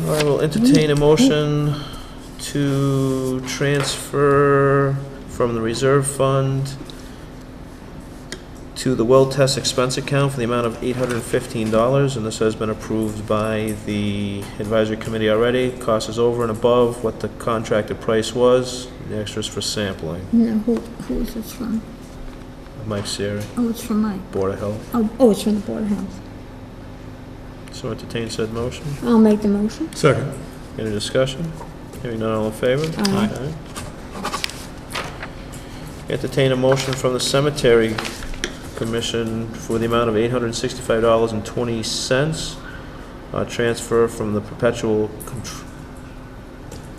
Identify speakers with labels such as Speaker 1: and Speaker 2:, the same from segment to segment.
Speaker 1: I will entertain a motion to transfer from the reserve fund to the well test expense account for the amount of eight hundred and fifteen dollars, and this has been approved by the advisory committee already. Cost is over and above what the contracted price was, the extras for sampling.
Speaker 2: No, who, who is this from?
Speaker 1: Mike Siri,
Speaker 2: Oh, it's from Mike.
Speaker 1: Board of Health.
Speaker 2: Oh, oh, it's from the Board of Health.
Speaker 1: So entertain said motion.
Speaker 2: I'll make the motion.
Speaker 3: Second.
Speaker 1: Any discussion? Hearing none, all in favor?
Speaker 2: Aye.
Speaker 1: Aye. Entertain a motion from the Cemetery Commission for the amount of $865.20, uh, transfer from the perpetual, contr-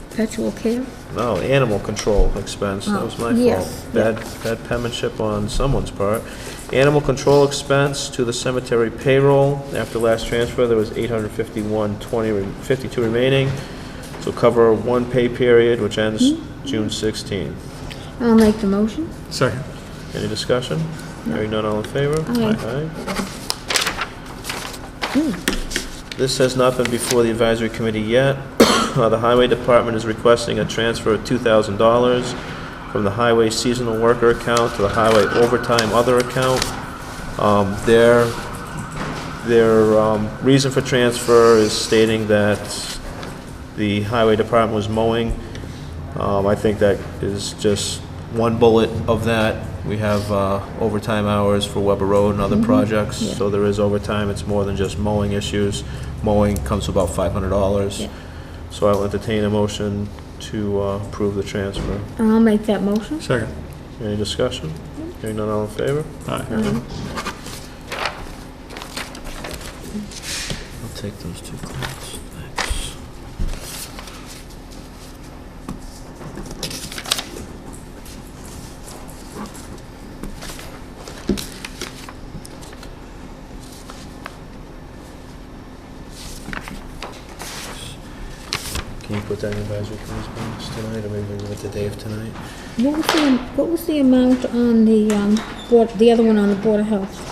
Speaker 2: Perpetual care?
Speaker 1: no, animal control expense, that was my
Speaker 2: Oh, yes,
Speaker 1: fault. Bad, bad penmanship on someone's part. Animal control expense to the cemetery payroll, after last transfer, there was 851.20, re- 52 remaining, so cover one pay period, which ends
Speaker 2: Hmm?
Speaker 1: June 16.
Speaker 2: I'll make the motion.
Speaker 3: Second.
Speaker 1: Any discussion?
Speaker 2: No.
Speaker 1: Hearing none, all in favor?
Speaker 2: Aye.
Speaker 1: Aye. This has not been before the advisory committee yet. Uh, The highway department is requesting a transfer of $2,000 from the highway seasonal worker account to the highway overtime other account. Um, Their, their um, reason for transfer is stating that the highway department was mowing um, I think that is just one bullet of that. We have uh, overtime hours for Weber Road and other projects,
Speaker 2: Mm-hmm. yeah.
Speaker 1: so there is overtime. It's more than just mowing issues. Mowing comes to about five hundred dollars.
Speaker 2: Yeah.
Speaker 1: So I'll entertain a motion to uh, approve the transfer.
Speaker 2: I'll make that motion.
Speaker 3: Second.
Speaker 1: Any discussion?
Speaker 2: Mm-hmm.
Speaker 1: Hearing none, all in favor?
Speaker 3: Aye.
Speaker 2: Aye.
Speaker 1: I'll take those two claims, thanks. Can you put that in advisory committee's minutes tonight, or maybe leave it to Dave tonight?
Speaker 2: What was the, what was the amount on the, um, board, the other one on the Board of Health?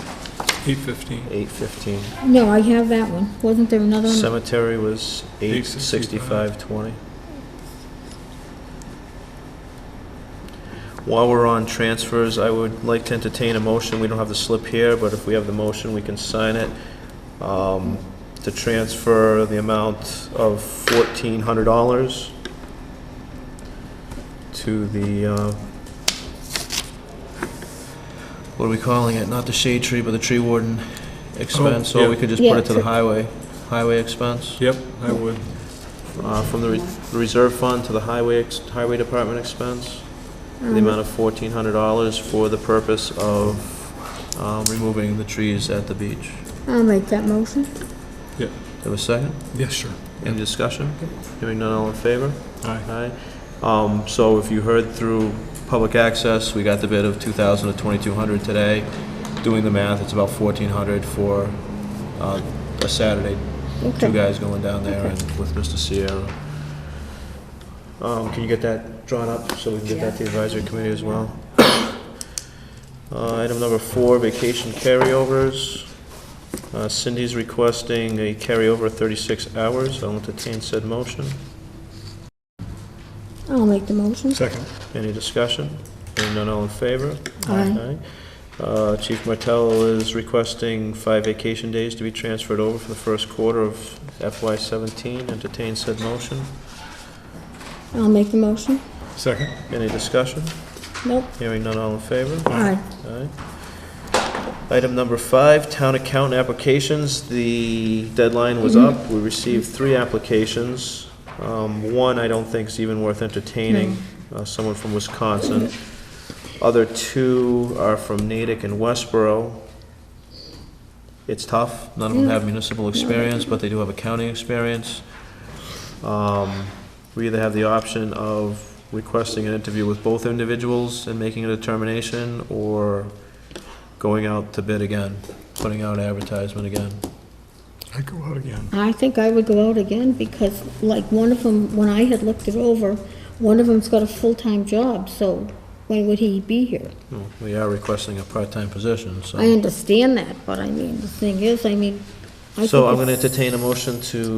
Speaker 3: Eight fifteen.
Speaker 1: Eight fifteen.
Speaker 2: No, I have that one. Wasn't there another one?
Speaker 1: Cemetery was eight sixty-five
Speaker 3: 865.
Speaker 1: twenty. While we're on transfers, I would like to entertain a motion, we don't have the slip here, but if we have the motion, we can sign it, um, to transfer the amount of fourteen hundred dollars to the, uh, what are we calling it, not the shade tree, but the tree warden Oh, expense, or we
Speaker 3: yeah.
Speaker 1: could just put
Speaker 2: Yeah,
Speaker 1: it to the
Speaker 2: tri-
Speaker 1: highway, highway expense?
Speaker 3: Yep, I would.
Speaker 1: Uh, From the re- reserve fund to the highway, ex- highway department expense, for the
Speaker 2: Um,
Speaker 1: amount of fourteen hundred dollars for the purpose of um, removing the trees at the beach.
Speaker 2: I'll make that motion.
Speaker 1: Have a second?
Speaker 3: Yeah, sure.
Speaker 1: Any discussion? Hearing none, all in favor?
Speaker 3: Aye.
Speaker 1: Aye. Um, So if you heard through public access, we got the bid of 2,000 to 2,200 today. Doing the math, it's about 1,400 for uh, a Saturday. Two
Speaker 2: Okay.
Speaker 1: guys going down there and with Mr. Sierra. Um, Can you get that drawn up so we can get that to the advisory committee as well? Uh, Item number four, vacation carryovers. Uh, Cindy's requesting a carryover of 36 hours. I'll entertain said motion.
Speaker 2: I'll make the motion.
Speaker 3: Second.
Speaker 1: Any discussion? Hearing none, all in favor?
Speaker 2: Aye.
Speaker 1: Aye. Uh, Chief Martell is requesting five vacation days to be transferred over for the first quarter of FY seventeen. Entertain said motion.
Speaker 2: I'll make the motion.
Speaker 3: Second.
Speaker 1: Any discussion?
Speaker 2: Nope.
Speaker 1: Hearing none, all in favor?
Speaker 2: Aye.
Speaker 1: Aye. Item number five, town account applications. The deadline was up. We received three applications. Um, One, I don't think is even worth entertaining, uh, someone from Wisconsin. Other two are from Natick and Westboro. It's tough. None of them have municipal experience, but they do have accounting experience. Um, We either have the option of requesting an interview with both individuals and making a determination, or going out to bid again, putting out advertisement again.
Speaker 3: I go out again.
Speaker 2: I think I would go out again because like one of them, when I had looked it over, one of them's got a full-time job, so when would he be here?
Speaker 1: Well, We are requesting a part-time position, so.
Speaker 2: I understand that, but I mean, the thing is, I mean, I think
Speaker 1: So I'm gonna
Speaker 2: it's-
Speaker 1: entertain a motion to